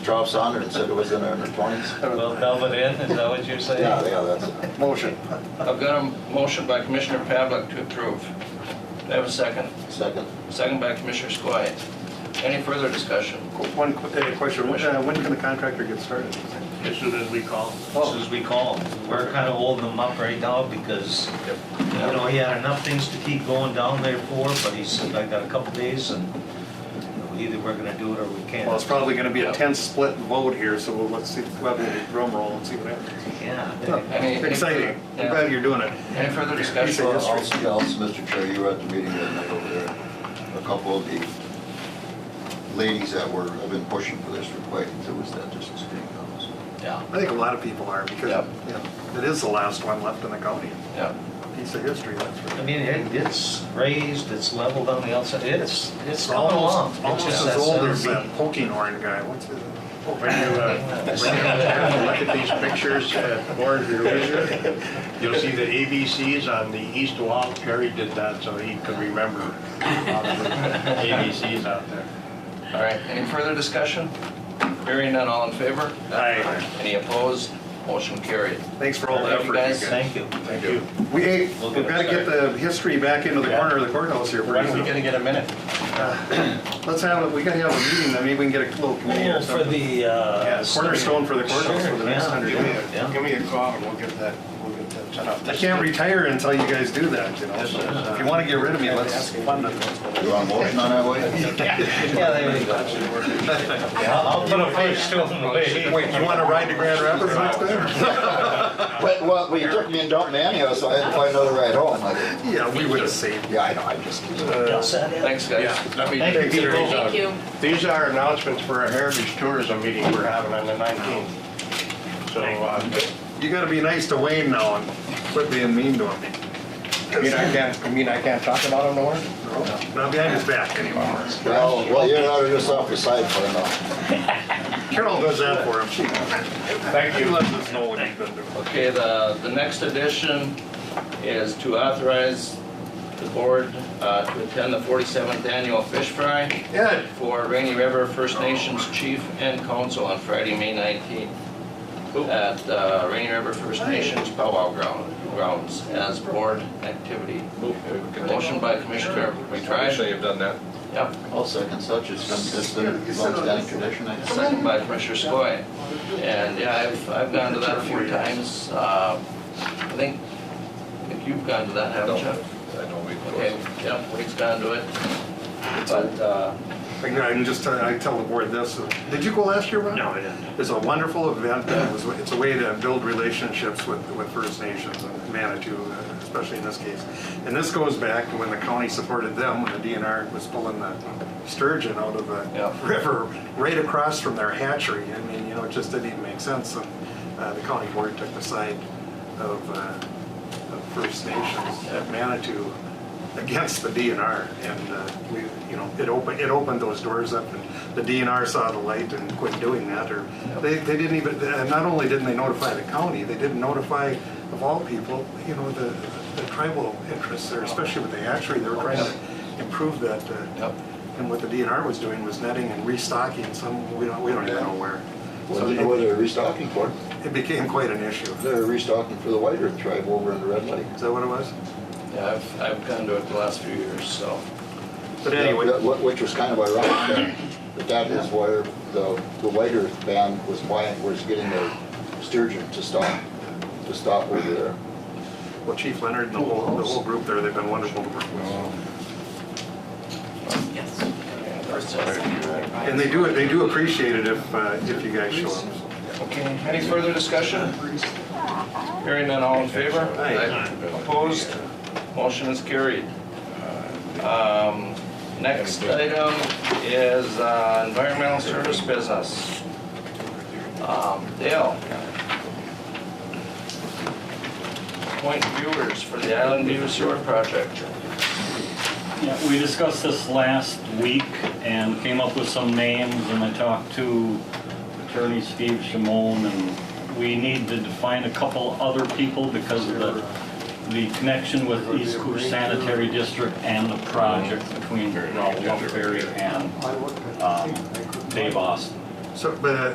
drops on it and said it was in her twenties. We'll delve it in, is that what you're saying? Yeah, yeah, that's, Motion. I've got a motion by Commissioner Pavlik to approve. Do I have a second? second. Second by Commissioner Skoye. Any further discussion? One qu- uh, question, when uh, when can the contractor get started? As soon as we call, as soon as we call. him. We're kind of holding him up right now because, you know, he had enough things to keep going down there for, but he said, I got a couple days and either we're gonna do it or we Well, it's can't. probably going to be a tense split vote here, so we'll- let's see, we'll have a drum roll and see what happens. Yeah. Any- Exciting. I'm Yeah. glad you're doing it. Any further He discussion? said Well, yes. Also, yeah, also, Mr. Chair, you were at the meeting that night over there. A couple of the ladies that were, have been pushing for this for quite, it was that just as being done. Yeah, I think a lot of people are because, Yep. you know, it is the last one left in the county. yeah. Piece of history, that's for I mean, it- it's raised, it's leveled on the outside, it's, it's It's coming along. almost, It's almost just as that old as centipede. that poking horn guy, what's his? Oh, when you, uh, when you uh, look at these pictures uh, at Board of your Leisure, You'll see the ABCs on the east wall. Terry did that so he could remember all the ABCs out there. All right, any further discussion? Hearing none, all in favor? Aye. Any opposed? Motion carried. thanks for all the Thank effort you you, guys. guys. Thank you. Thank you. We, hey, We'll we've get got to get the history back into the corner of the courthouse here. When are we gonna get a minute? Let's have, a- we gotta have a meeting, then maybe we can get a little committee or Oh, For something. the, uh. Yeah, cornerstone for the courthouse for the next Sure, hundred yeah, years. yeah. Give me a call and we'll get that, we'll get that set up. I can't retire until you guys do that, you know, This is, uh, if you want to get rid of me, let's. You want a motion on that, Wade? Yeah, there you go. I'll I'll put a face to him later. Wait, you want to ride to Grand Rapids next time? But, well, well, you took me and dumped me anyhow, so I had to find another ride home. I- Yeah, we would have saved. Yeah, I know, I just. Thanks, guys. Let me- Thank you. Thank you. These are announcements for a heritage tourism meeting we're having on the 19th. So, uh, You gotta be nice to Wayne now and quit being mean to him, I mean, I can't, I mean, I can't talk about them no more? not behind his back anymore. Well, well, you're not just off your side uh, for now. Carol does that for him, she, Thank she you. lets us know what he's been doing. Okay, the, the next addition is to authorize the board uh, to attend the 47th annual fish fry Ed, for Rainy River First Nations Chief and Council on Friday, May 19th at uh, Rainy River First Nations Powwow Ground- Grounds as board activity. Motion by Commissioner McBride, have done that. yep, I'll second such, it's been, it's been a long-standing tradition, I guess. second by Commissioner Skoye. And yeah, I've, I've gone to that a few times. Uh, I think, I think you've gone to that, haven't you? I know we. Okay, yeah, Wade's gone to it. But, uh, I can just, tell- I tell the board this, did you go last year, Ron? No, I didn't. It's a wonderful event, and it was- it's a way to build relationships with, with First Nations and Manitou, uh, especially in this case. And this goes back to when the county supported them, when the DNR was pulling the sturgeon out of Yeah. the river, right across from their hatchery. I mean, you know, it just didn't even make sense, and uh, the county board took the side of, uh, of First Nations at Manitou against the DNR, and uh, we, you know, it opened, it opened those doors up, and the DNR saw the light and quit doing that, or, they, they didn't even, and not only didn't they notify the county, they didn't notify, of all people, you know, the, the tribal interests there, especially with the hatchery, they were trying to improve that, uh, Yep. and what the DNR was doing was netting and restocking some, we don't, we don't even know where. Well, So you know what it- they're restocking for? it became quite an issue. Is They're restocking for the White Earth tribe over in the Red Lake. that what it was? yeah, I've, I've gone to it the last few years, so. But anyway, That- what- Which was kind of ironic, that- that that is where the, the White Earth band was why, was getting their sturgeon to stop, to stop over there. well, Chief Leonard and the whole, the whole group there, they've been wonderful to work with. Yes. And they do, they do appreciate it if, uh, if you guys show up. Okay, any further discussion? Hearing none, all in favor? Aye. Opposed? Motion is carried. Um, Next item is uh, environmental service business. Um, Dale? Point viewers for the Island View Sewer Project. Yeah, we discussed this last week and came up with some names, and I talked to attorney Steve Shimon, and we need to define a couple other people because of the, the connection with East Coast Sanitary District and the project between Ralph Berry and um, Dave Austin. So, but uh,